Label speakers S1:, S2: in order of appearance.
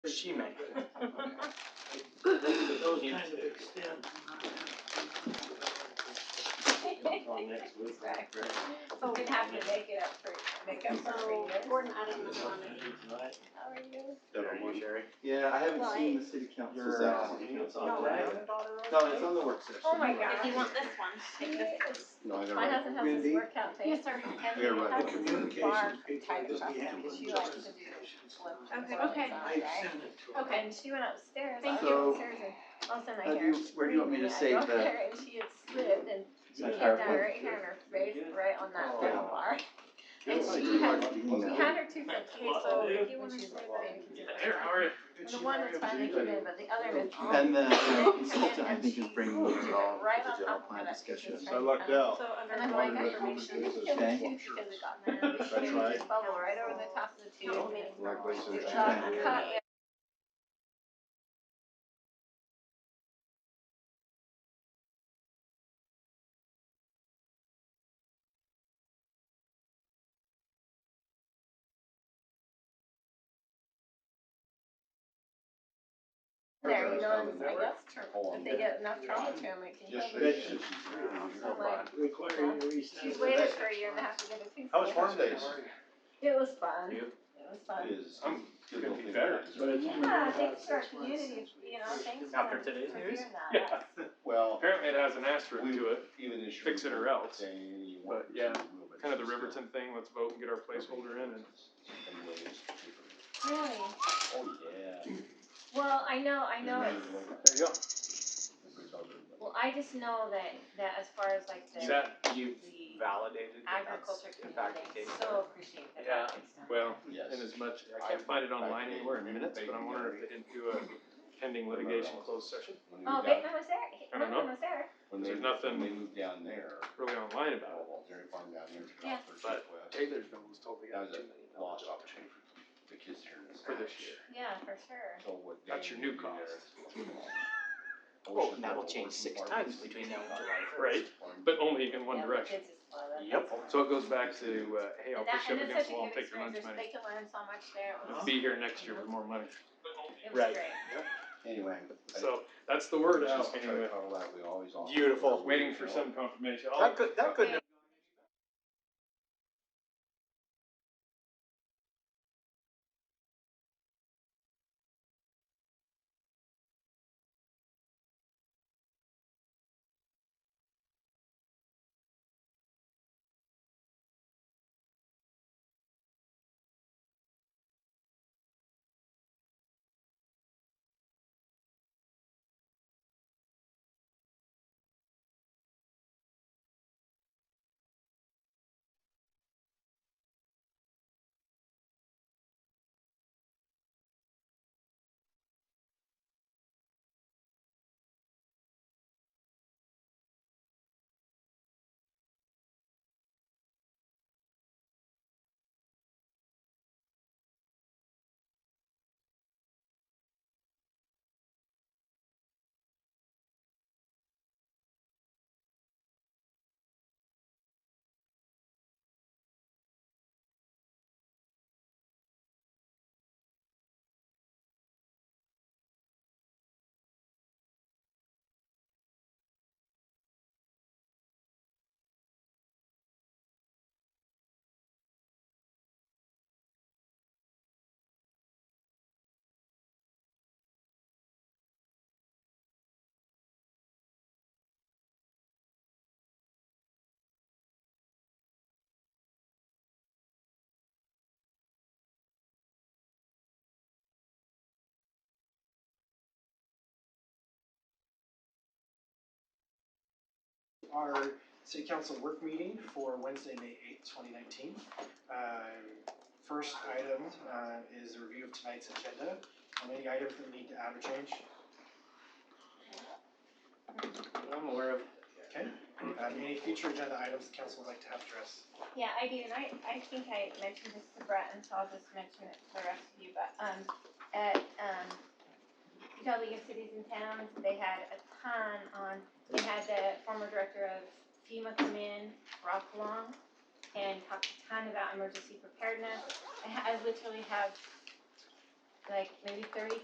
S1: she made.
S2: Those kind of extend.
S3: So we can have to make it up for, make up for
S4: So,
S3: years.
S4: Gordon, I don't know on it.
S3: How are you?
S1: Yeah, I haven't
S3: Well,
S1: seen the city council.
S5: Your,
S1: session.
S5: uh,
S1: No, it's on the work session.
S3: Oh my
S1: Right.
S3: gosh.
S4: If you want this one,
S3: She
S4: take this.
S3: is,
S5: No, I
S3: my
S5: gotta,
S3: husband has this
S1: Wendy?
S3: workout thing.
S4: Yes, sir.
S3: Every
S5: Yeah, right.
S3: time
S5: The
S3: we
S2: communications
S3: bar
S2: people
S3: type
S2: that
S3: stuff,
S2: we handle
S3: She
S2: in
S3: likes to do
S2: justice
S3: flip
S2: communications.
S3: flip
S4: Okay.
S3: flops on,
S4: Okay.
S2: I
S3: right?
S2: sent it to her.
S3: Okay, and she went upstairs, I
S4: Thank
S1: you.
S3: went upstairs and all of a sudden I
S1: How Uh, do
S3: hear.
S1: you- where do you want me to
S3: screaming.
S1: save
S3: I go up
S1: the-
S3: there and she had slid and she
S1: My
S3: hit down
S1: PowerPoint.
S3: right here on her face, right on that
S1: Oh.
S3: metal bar. And
S5: I
S3: she
S5: do
S3: had,
S5: like the
S3: we
S5: email.
S3: had her two flips, so if you wanna save that.
S2: Did
S3: The
S2: she
S3: one
S2: marry
S3: is
S2: a
S3: finally
S2: Jew?
S3: given, but the other is.
S1: And the uh,
S3: And-
S1: consultant, I
S3: and
S1: think, is
S3: she
S1: bringing those
S3: threw it
S1: all to
S3: right on
S1: the general
S3: top of
S1: plan
S3: that
S1: discussion.
S3: kitchen.
S6: So I lucked out.
S4: So under.
S3: And I'm like, I information, because
S1: Okay.
S3: it got in there,
S6: That's
S3: and it
S6: right.
S3: just bubbled right over the top of the tube.
S4: No.
S5: like, what's the-
S3: It's not Uh, cut yet. There, you know, and I guess, tra- if they get enough trauma to them, it can kill them.
S6: Yesterday.
S3: So I'm like,
S2: Requiring a reset.
S3: she's waited for a year and a half to get a tooth.
S6: How was
S3: fixed.
S6: Farm Days?
S3: It was fun. It
S6: You?
S3: was fun.
S5: It is.
S6: I'm
S5: Good
S6: gonna be
S5: looking.
S6: better.
S2: But it's been
S3: Yeah,
S2: about
S3: thanks to our
S2: six months
S3: community,
S2: since we
S3: you know,
S2: first-
S3: thanks
S6: After
S3: for
S6: today's
S3: for
S6: news?
S3: doing
S6: Yeah.
S3: that.
S5: Well,
S6: Apparently it has an asterisk
S5: We-
S6: to it,
S5: even if you
S6: Fix it or else.
S5: say you want
S6: But, yeah,
S5: to, but
S6: kind of the
S5: it's still-
S6: Riverton thing, let's vote and get our placeholder in and.
S5: Anyway, it's cheaper.
S3: Really?
S5: Oh, yeah.
S3: Well, I know, I know
S5: Yeah,
S3: it's,
S6: There you go.
S3: well, I just know that, that as far as like
S1: Is
S3: the
S1: that you've validated that that's
S3: agriculture
S1: in fact the
S3: community,
S1: case?
S3: so appreciate that.
S6: Yeah.
S3: Well.
S6: Well,
S5: Yes.
S6: and as much, I can't find it online
S5: I- I-
S6: anywhere in minutes, but I'm wondering if they didn't do a pending litigation closed session,
S5: When we
S3: Oh,
S5: got-
S3: Bateman was there,
S6: I don't
S3: Bateman was there.
S5: when they-
S6: there's nothing-
S5: When they moved down there,
S6: really online about it.
S5: well, dairy farm down there.
S3: Yeah.
S6: But-
S5: But.
S6: Taylor's bill was totally
S5: That was a lost opportunity for the kids here in this.
S6: For this
S5: house.
S6: year.
S3: Yeah, for sure.
S5: So what
S6: That's
S5: they
S6: your new
S5: do there
S6: cost.
S5: is-
S1: Oh,
S5: Ocean
S1: and that'll
S5: Level
S1: change
S5: Orchard
S1: six
S5: Park
S1: times
S5: is-
S1: between now and July first.
S6: Right, but only in one
S3: Yeah, the
S6: direction.
S3: kids just love it.
S1: Yep.
S6: So it goes back to, uh, hey, I'll
S3: And that,
S6: push you
S3: and it's such a
S6: up against the wall and
S3: good
S6: take your
S3: experience,
S6: lunch
S3: there's-
S6: money.
S3: they can learn so much there, it was,
S6: Be here next year with more money.
S3: it was
S1: Right.
S3: great.
S5: Anyway. I-
S6: So that's the word
S5: Just
S6: out
S5: try to
S6: anyway.
S5: cover that, we always offer.
S1: Beautiful.
S6: Waiting for some confirmation. I'll-
S1: That could, that couldn't have
S7: our city council work meeting for Wednesday, May eighth, twenty nineteen. Uh, First item uh, is a review of tonight's agenda, and any items that need to add or change,
S6: I'm aware of.
S7: okay? Um, Any future agenda items the council would like to have addressed?
S3: Yeah, I do, and I, I think I mentioned this to Brett, and so I'll just mention it to the rest of you, but, um, at, um, Utah League of Cities and Towns, they had a ton on, we had the former director of FEMA come in, Rob Long, and talked a ton about emergency preparedness. I, ha- I literally have, like, maybe thirty